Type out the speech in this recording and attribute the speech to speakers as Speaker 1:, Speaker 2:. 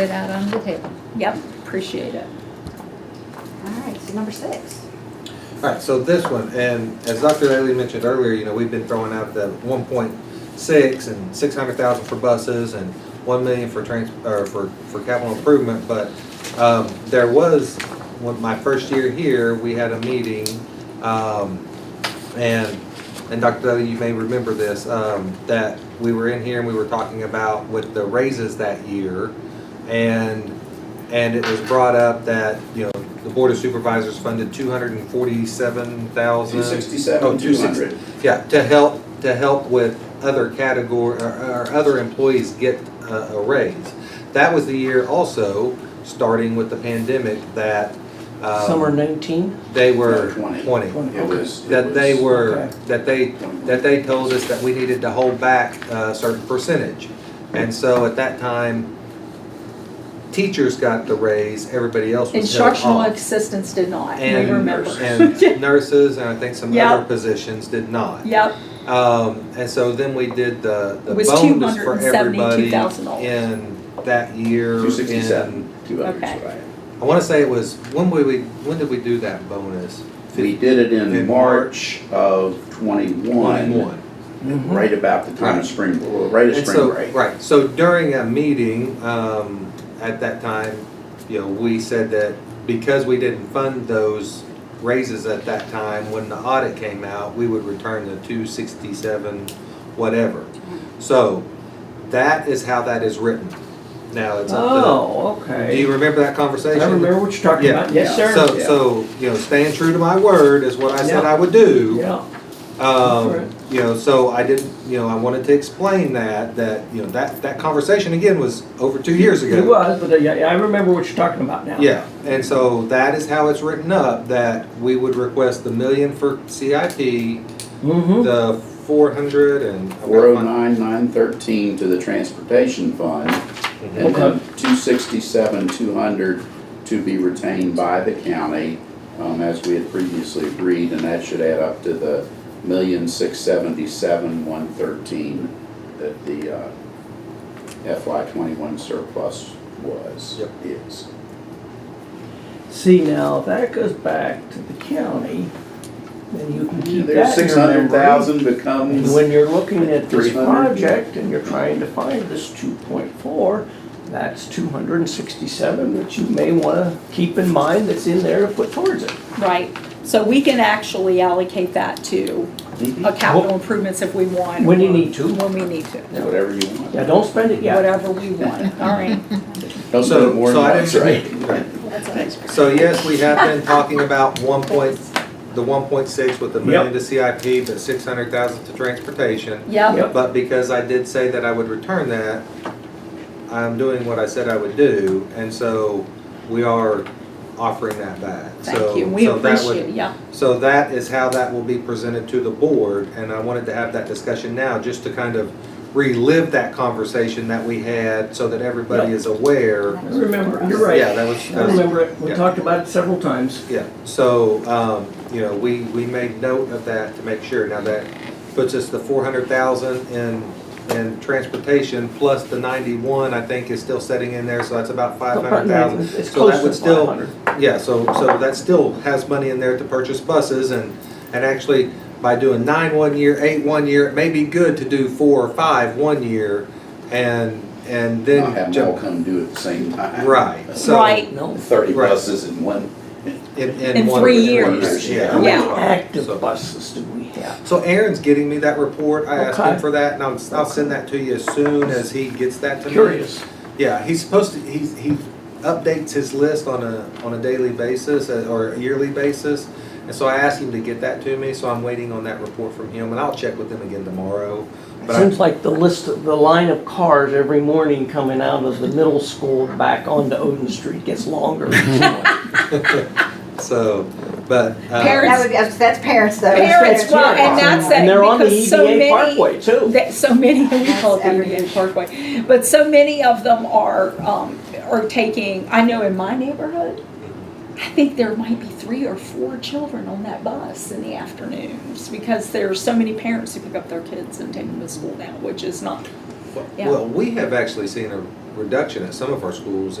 Speaker 1: it out on the table.
Speaker 2: Yep, appreciate it.
Speaker 3: All right, so number six.
Speaker 4: All right, so this one, and as Dr. Daly mentioned earlier, you know, we've been throwing out the one point six and six hundred thousand for buses and one million for trans, or for, for capital improvement, but, um, there was, when my first year here, we had a meeting, um, and, and Dr. Dudley, you may remember this, um, that we were in here and we were talking about with the raises that year. And, and it was brought up that, you know, the Board of Supervisors funded two hundred and forty-seven thousand. Oh,
Speaker 5: Two sixty-seven, Oh, two hundred.
Speaker 4: Yeah, to help, to help with other category, or, or other employees get a, a raise. That was the year also, starting with the pandemic, that, um,
Speaker 6: Summer 19?
Speaker 4: They were
Speaker 5: Twenty.
Speaker 4: twenty
Speaker 5: It was. it
Speaker 4: that they
Speaker 5: was-
Speaker 4: were,
Speaker 6: Okay.
Speaker 4: that they, that they told us that we needed to hold back a certain percentage. And so at that time, teachers got the raise, everybody else was held
Speaker 2: Instructional
Speaker 4: off.
Speaker 2: assistants did not, we
Speaker 4: oh. And-
Speaker 2: remember.
Speaker 4: And nurses, and I think some
Speaker 2: Yeah.
Speaker 4: other positions did not.
Speaker 2: Yep,
Speaker 4: Um, and so then we did the, the
Speaker 2: It was
Speaker 4: bonus for everybody
Speaker 2: $272,000.
Speaker 4: in that year.
Speaker 5: Two
Speaker 4: in-
Speaker 5: sixty-seven, two hundred,
Speaker 2: Okay.
Speaker 5: right.
Speaker 4: I wanna say it was, when we, we, when did we do that bonus?
Speaker 5: We did it in
Speaker 4: In
Speaker 5: March of twenty-one,
Speaker 4: Mm-hmm.
Speaker 5: right about the time of spring, well, right at
Speaker 4: And
Speaker 5: spring
Speaker 4: so-
Speaker 5: break.
Speaker 4: Right, so during a meeting, um, at that time, you know, we said that because we didn't fund those raises at that time, when the audit came out, we would return the two sixty-seven, whatever.
Speaker 6: Mm-hmm.
Speaker 4: So, that is how that is written. Now, it's up
Speaker 6: Oh,
Speaker 4: to, do you
Speaker 6: okay.
Speaker 4: remember that
Speaker 6: I
Speaker 4: conversation?
Speaker 6: remember what you're talking
Speaker 4: Yeah.
Speaker 6: about. Yes,
Speaker 5: Yeah.
Speaker 6: sir.
Speaker 4: So,
Speaker 5: yeah.
Speaker 4: so, you know, staying true to my word is what I said
Speaker 6: Yeah.
Speaker 4: I would do.
Speaker 6: Yeah, Right.
Speaker 4: Um, you know, so I didn't, you know, I wanted to explain that, that, you know, that, that conversation again was over two years ago.
Speaker 6: it was, but uh, yeah, yeah, I remember what you're talking about now.
Speaker 4: Yeah, and so that is how it's written up, that we would request the million for CIP,
Speaker 6: Mm-hmm.
Speaker 4: the four hundred and.
Speaker 5: Hmm. Four oh nine, nine thirteen to the transportation fund, and then two sixty-seven, two hundred to be retained by the county, um, as we had previously agreed, and that should add up to the million, six seventy-seven, one thirteen that the, uh, FY twenty-one surplus was, is.
Speaker 6: See, now, if that goes back to the county, then you can keep
Speaker 5: There's
Speaker 6: that in
Speaker 5: six
Speaker 6: your memory.
Speaker 5: hundred thousand
Speaker 6: And
Speaker 5: becomes,
Speaker 6: When you're looking at this
Speaker 5: 300.
Speaker 6: project and you're trying to find this two point four, that's two hundred and sixty-seven, which you may wanna keep in mind that's in there to put towards it.
Speaker 2: right. So we can actually allocate that to a capital improvements if we want.
Speaker 6: When you
Speaker 2: or
Speaker 6: need to.
Speaker 2: When we need to,
Speaker 5: whatever you want.
Speaker 6: Yeah, don't spend it yet.
Speaker 2: whatever we want, all right.
Speaker 5: Don't
Speaker 4: So-
Speaker 5: spend more
Speaker 4: so
Speaker 5: than
Speaker 4: I
Speaker 5: once, right?
Speaker 4: didn't-
Speaker 3: That's a
Speaker 4: So yes, we have been talking about one point, the one point six with the million to CIP, but six hundred thousand to transportation.
Speaker 2: Yep,
Speaker 6: Yep.
Speaker 4: But because I did say that I would return that, I'm doing what I said I would do, and so we are offering that back. So-
Speaker 2: thank you, we
Speaker 4: so that would-
Speaker 2: appreciate, it. yeah,
Speaker 4: So that is how that will be presented to the board, and I wanted to have that discussion now, just to kind of relive that conversation that we had, so that everybody
Speaker 6: Yeah.
Speaker 4: is aware.
Speaker 6: I Remember, you're right.
Speaker 4: Yeah, that was.
Speaker 6: I
Speaker 4: that was-
Speaker 6: remember it, we
Speaker 4: yeah.
Speaker 6: talked about it several times.
Speaker 4: Yeah, so, um, you know, we, we made note of that to make sure. Now that puts us the four hundred thousand in, in transportation plus the ninety-one, I think is still setting in there, so that's about five hundred thousand.
Speaker 6: It's- It's
Speaker 4: So
Speaker 6: close
Speaker 4: that
Speaker 6: to
Speaker 4: would
Speaker 6: five
Speaker 4: still,
Speaker 6: hundred.
Speaker 4: yeah, so, so that still has money in there to purchase buses and, and actually by doing nine one year, eight one year, it may be good to do four or five one year and, and then.
Speaker 5: Not have them all
Speaker 4: jump-
Speaker 5: come due at the same time.
Speaker 4: Right, so.
Speaker 2: right,
Speaker 6: No,
Speaker 5: Thirty
Speaker 4: Right.
Speaker 5: buses in one.
Speaker 4: In, in
Speaker 2: In
Speaker 4: one-
Speaker 2: three
Speaker 4: in one year,
Speaker 5: years.
Speaker 4: yeah.
Speaker 5: Yeah.
Speaker 6: how many
Speaker 2: Yeah.
Speaker 4: So-
Speaker 6: active buses do we have?
Speaker 4: So Aaron's getting me that report. I asked
Speaker 6: Okay.
Speaker 4: him for that, and I'll, I'll send that to you as soon as he gets that to me.
Speaker 6: Curious.
Speaker 4: Yeah, he's supposed to, he's, he updates his list on a, on a daily basis uh, or a yearly basis. And so I asked him to get that to me, so I'm waiting on that report from him, and I'll check with him again tomorrow.
Speaker 6: It
Speaker 4: But I,
Speaker 6: seems like the list, of- the line of cars every morning coming out of the middle school back onto Odin Street gets longer.
Speaker 4: so, but,
Speaker 2: Parents-
Speaker 4: uh,
Speaker 3: That would be, that's parents though.
Speaker 2: Parents, well, and that's it,
Speaker 6: And they're on the
Speaker 2: because
Speaker 4: E
Speaker 2: so
Speaker 6: EDA
Speaker 2: many-
Speaker 6: Parkway too.
Speaker 2: that, so many, we
Speaker 3: That's
Speaker 2: call it the
Speaker 3: every-
Speaker 2: Indian Parkway, but so many of them are, um, are taking, I know in my neighborhood, I think there might be three or four children on that bus in the afternoons, because there are so many parents who pick up their kids and take them to school now, which is not, yeah.
Speaker 4: well, we have actually seen a, reduction at some of our schools